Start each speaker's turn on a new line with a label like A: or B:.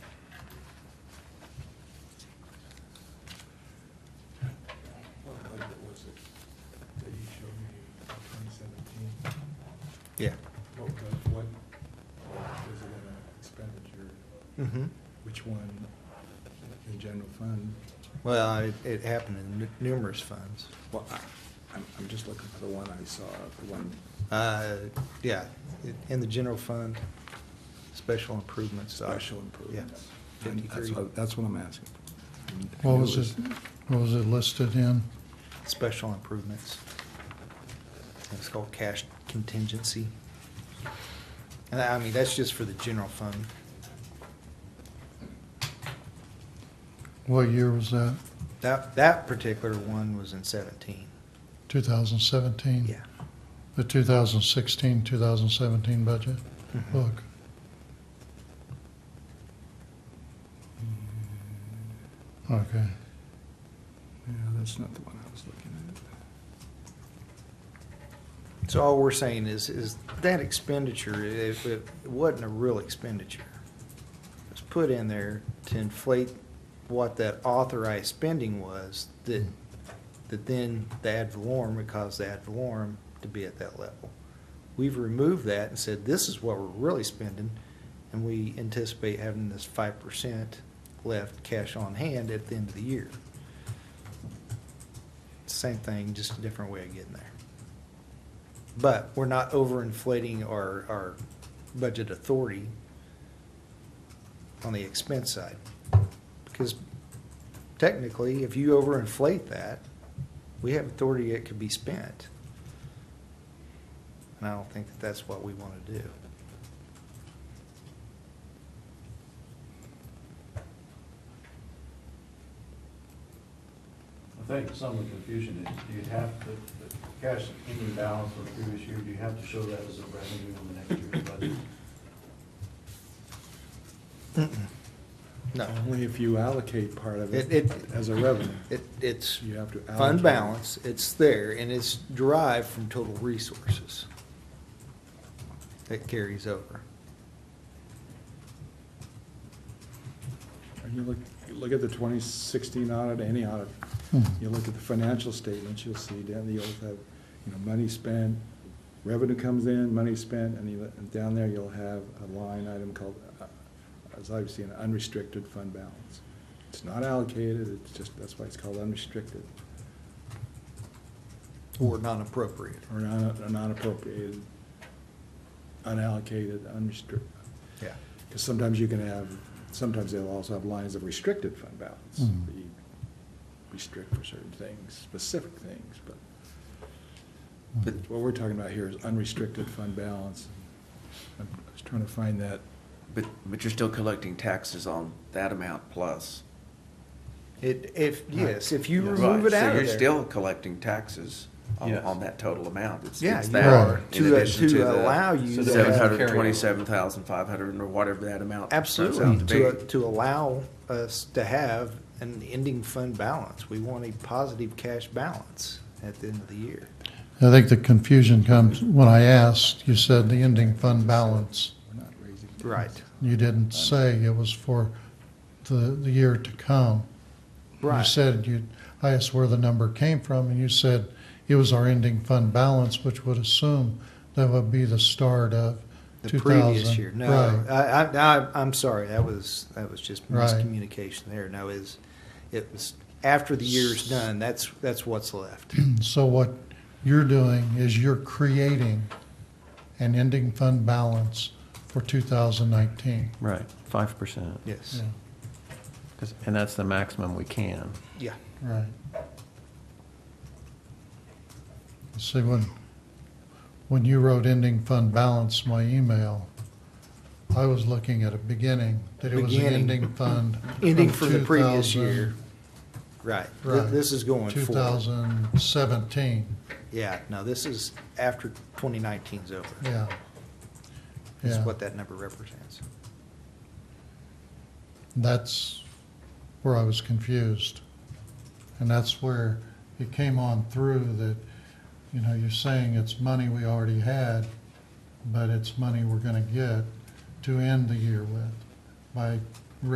A: Oh,
B: Mhm.
A: Which one? The general fund?
B: Well, it, it happened in nu- numerous funds.
A: Well, I- I'm, I'm just looking for the one I saw, the one,
B: Uh, yeah, it- in the general fund, special improvements. uh,
A: special improvement.
B: Yeah,
A: And that's
B: 53.
A: what- That's what I'm asking. I
C: What
A: knew
C: was it, what was it listed in?
B: Special improvements. It's called cash contingency. And I mean, that's just for the general fund.
C: What year was that?
B: That, that particular one was in seventeen.
C: 2017?
B: Yeah.
C: The 2016, 2017 budget
B: Mhm.
C: book? Okay.
A: Yeah, that's not the one I was looking at.
B: So all we're saying is, is that expenditure, if it wasn't a real expenditure, it was put in there to inflate what that authorized spending was, that, that then the ad valorem would cause the ad valorem to be at that level. We've removed that and said, this is what we're really spending, and we anticipate having this five percent left cash on hand at the end of the year. Same thing, just a different way of getting there. But we're not overinflating our, our budget authority on the expense side. Because technically, if you overinflate that, we have authority that could be spent. And I don't think that that's what we want to do.
D: I think some of the confusion is, do you have the, the cash ending balance for the previous year, do you have to show that as a revenue on the next year's budget?
B: No,
A: Only if you allocate part of
B: it
A: it
B: It- it-
A: as a revenue.
B: it, it's
A: You have to allocate.
B: fund balance, it's there, and it's derived from total resources. That carries over.
A: And you look, you look at the twenty sixteen audit, any audit,
C: Hmm.
A: you look at the financial statements, you'll see down the oath have, you know, money spent, revenue comes in, money spent, and you, and down there you'll have a line item called, uh, as I've seen, unrestricted fund balance. It's not allocated, it's just, that's why it's called unrestricted,
B: Or non-appropriate.
A: or non, or non-appropriated, unallocated, unrestricted.
B: Yeah.
A: Because sometimes you can have, sometimes they'll also have lines of restricted fund balance.
C: Mhm.
A: that you Restrict for certain things, specific things, but
C: Hmm.
A: what we're talking about here is unrestricted fund balance. I was trying to find that,
E: But, but you're still collecting taxes on that amount plus.
B: It, if, yes, if you
A: Right.
B: remove it
E: Right,
B: out of
E: So you're
B: there.
E: still collecting taxes on,
D: Yes.
E: on that total amount. It's-
B: Yeah,
E: it's
B: you
E: that
C: are.
E: in
B: To- uh,
E: addition
B: to
E: the
B: allow you
D: So that-
E: Seven hundred twenty-seven thousand five hundred or whatever that amount. turns out
B: Absolutely, to,
E: be.
B: to allow us to have an ending fund balance. We want a positive cash balance at the end of the year.
C: I think the confusion comes, when I asked, you said the ending fund balance.
A: we're not raising.
B: Right.
C: You didn't say it was for the, the year to come. You
B: Right,
C: said you, I asked where the number came from, and you said it was our ending fund balance, which would assume that would be the start of
B: the
C: 2000.
B: previous year. No,
C: Right.
B: I, I, I- I'm sorry, that was, that was just
C: Right.
B: miscommunication there. No, is, it was, after the year's done, that's, that's what's left.
C: So what you're doing is you're creating an ending fund balance for 2019.
F: Right, five percent,
B: Yes,
C: Yeah,
F: and that's the maximum we can.
B: yeah.
C: right. See, when, when you wrote ending fund balance, my email, I was looking at a beginning, that it was the
B: Beginning.
C: ending fund.
B: Ending from the previous year.
C: 2000
B: Right, Th-
C: Right.
B: this is going forward.
C: 2017,
B: Yeah, no, this is after 2019's over.
C: yeah.
B: is
C: Yeah,
B: what that number represents.
C: that's where I was confused. And that's where it came on through that, you know, you're saying it's money we already had, but it's money we're gonna get to end the year with by